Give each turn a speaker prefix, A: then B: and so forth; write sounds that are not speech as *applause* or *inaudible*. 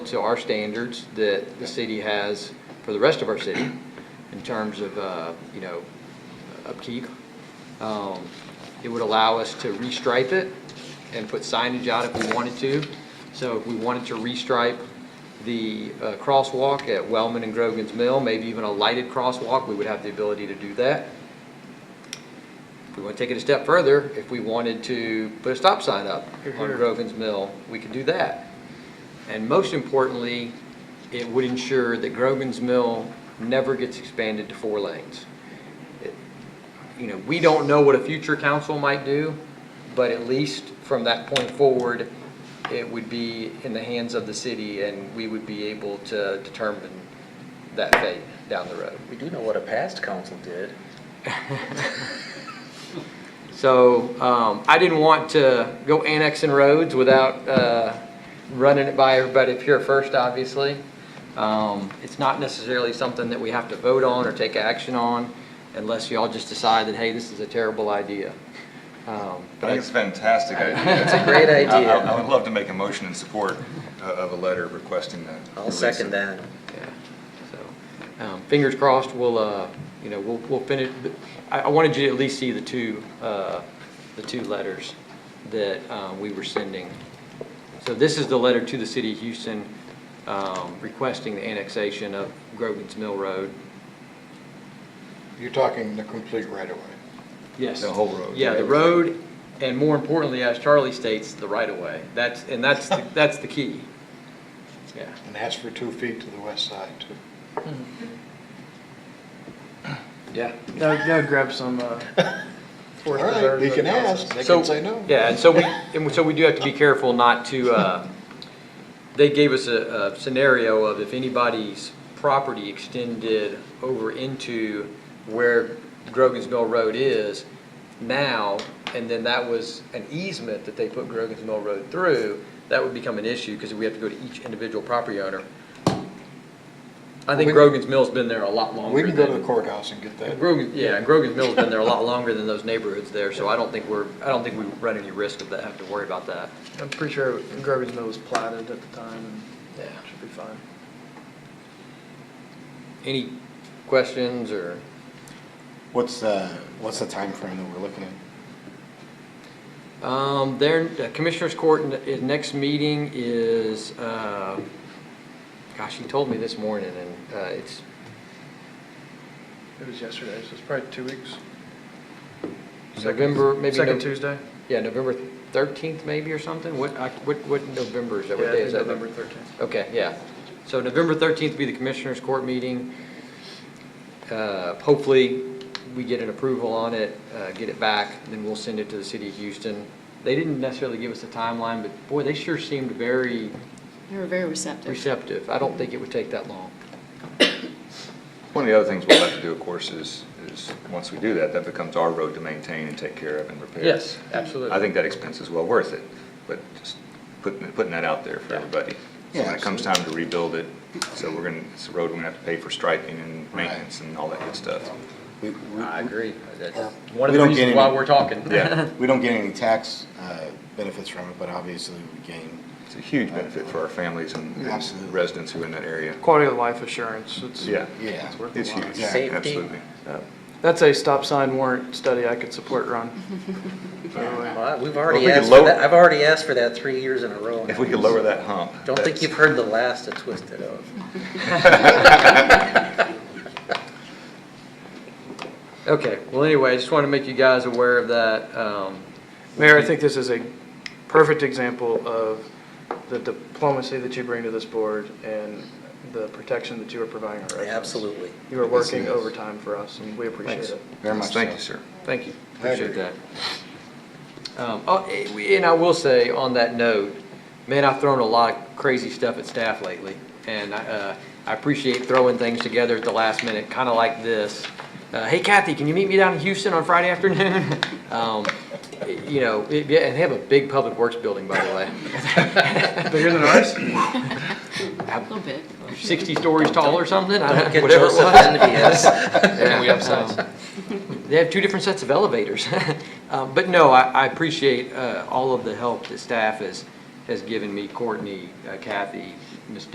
A: to our standards that the city has for the rest of our city in terms of, uh, you know, upkeep. Um, It would allow us to restripe it and put signage out if we wanted to. So if we wanted to restripe the uh, crosswalk at Wellman and Grogan's Mill, maybe even a lighted crosswalk, we would have the ability to do that. If we want to take it a step further, if we wanted to put a stop sign up on Grogan's Mill, we could do that. And most importantly, it would ensure that Grogan's Mill never gets expanded to four lanes. It- You know, we don't know what a future council might do, but at least from that point forward, it would be in the hands of the city and we would be able to determine that fate down the road.
B: We do know what a past council did.
A: So um, I didn't want to go annexing roads without uh, running it by everybody up here first, obviously. Um, It's not necessarily something that we have to vote on or take action on unless y'all just decide that, hey, this is a terrible idea. Um,
C: I think it's a fantastic idea.
B: It's
C: It's
B: a
C: *laughs*
B: great
C: a- I- I I
B: idea.
C: would love to make a motion in support uh, of a letter requesting that.
B: I'll second that.
A: Yeah, so, um, fingers crossed, we'll, uh, you know, we'll, we'll finish, but I, I wanted you to at least see the two, uh, the two letters that, um, we were sending. So this is the letter to the city of Houston, um, requesting the annexation of Grogan's Mill Road.
D: You're talking the complete right-of-way.
A: Yes.
C: The whole road.
A: Yeah, the road, and more importantly, as Charlie states, the right-of-way. That's, and that's, the- that's the key. Yeah.
D: And ask for two feet to the west side, too.
A: Yeah.
E: They'll, they'll grab some, uh.
D: All
E: Forest
D: right,
E: Preserve
D: we can
E: and-
D: ask, they
A: So-
D: can say no.
A: Yeah, and so we, and so we do have to be careful not to, uh, they gave us a, a scenario of if anybody's property extended over into where Grogan's Mill Road is now, and then that was an easement that they put Grogan's Mill Road through, that would become an issue, because we have to go to each individual property owner. I think
D: We-
A: Grogan's Mill's been there a lot longer
D: We can go to
A: than-
D: the courthouse and get that.
A: Grogan, yeah, Grogan's Mill's been there a lot longer than those neighborhoods there, so I don't think we're, I don't think we run any risk of that, have to worry about that.
E: I'm pretty sure Grogan's Mill was platted at the time and
A: Yeah.
E: should be fine.
A: Any questions or,
F: What's, uh, what's the time frame that we're looking at?
A: um, their, the Commissioners Court, n- i- next meeting is, uh, gosh, he told me this morning and, uh, it's,
E: It was yesterday, so it's probably two weeks. Second-
A: November, maybe
E: Second
A: Nov-
E: Tuesday?
A: yeah, November thirteenth maybe or something? What, I, what, what November is
E: Yeah, I
A: that? What day
E: think
A: is that?
E: November thirteenth.
A: Okay, yeah. So November 13th will be the Commissioners Court meeting. Uh, Hopefully, we get an approval on it, uh, get it back, then we'll send it to the city of Houston. They didn't necessarily give us a timeline, but boy, they sure seemed very
G: They were very receptive.
A: receptive. I don't think it would take that long.
C: One of the other things we'll have to do, of course, is, is, once we do that, that becomes our road to maintain and take care of and repair. I
A: absolutely.
C: think that expense is well worth it, but just putting, putting that out there for everybody. So
F: Yeah,
C: when it comes time to rebuild it, so we're gonna, it's a road we're gonna have to pay for striping and maintenance and all that good stuff.
F: We, we-
A: I agree. That's
F: Yeah.
A: one of
F: We
A: the
F: don't get
A: reasons
F: any-
A: why we're talking.
C: Yeah,
F: we don't get any tax, uh, benefits from it, but obviously we gain.
C: it's a huge benefit for our families and and
F: Absolutely.
C: residents who are in that area.
E: Quality of life assurance, it's.
C: Yeah.
F: Yeah.
E: It's worth a
C: It's
E: lot.
C: huge,
F: Safety.
C: absolutely.
E: That's a stop sign warrant study I could support, *laughs* Ron. By the
B: *laughs*
E: way.
B: Well, we've
C: Well, if
B: already
C: we could
B: asked for
C: low-
B: that, I've already asked for that three years in a row.
C: If we could lower that hump.
B: Don't think you've heard the last of Twisted Oath.
C: *laughs*
A: Okay, well, anyway, I just want to make you guys aware of that. Um,
E: Mayor, I think this is a perfect example of the diplomacy that you bring to this board and the protection that you are providing our residents.
B: Absolutely.
E: You are
F: Yes,
E: working
F: it is.
E: overtime for us, and we appreciate
A: Thanks.
E: it.
F: Very much
C: Thank
F: so.
C: you, sir.
A: Thank you,
D: I
A: appreciate
D: agree.
A: that. Um, oh, eh, we- And I will say, on that note, man, I've thrown a lot of crazy stuff at staff lately, and I uh, I appreciate throwing things together at the last minute, kind of like this. Uh, Hey Kathy, can you meet me down in Houston on Friday afternoon? *laughs* Um, eh, You know, it- yeah, and they have a big public works building, by the way,
E: Bigger
A: *laughs*
E: than ours?
G: A little bit.
A: 60 stories tall or something, I
B: Don't
A: don't-
B: get
A: whatever it
B: Joseph
A: was.
C: *laughs*
B: envious.
A: we They have two different sets of elevators. *laughs* Um, But no, I, I appreciate uh, all of the help that staff has, has given me, Courtney, uh, Kathy, Ms.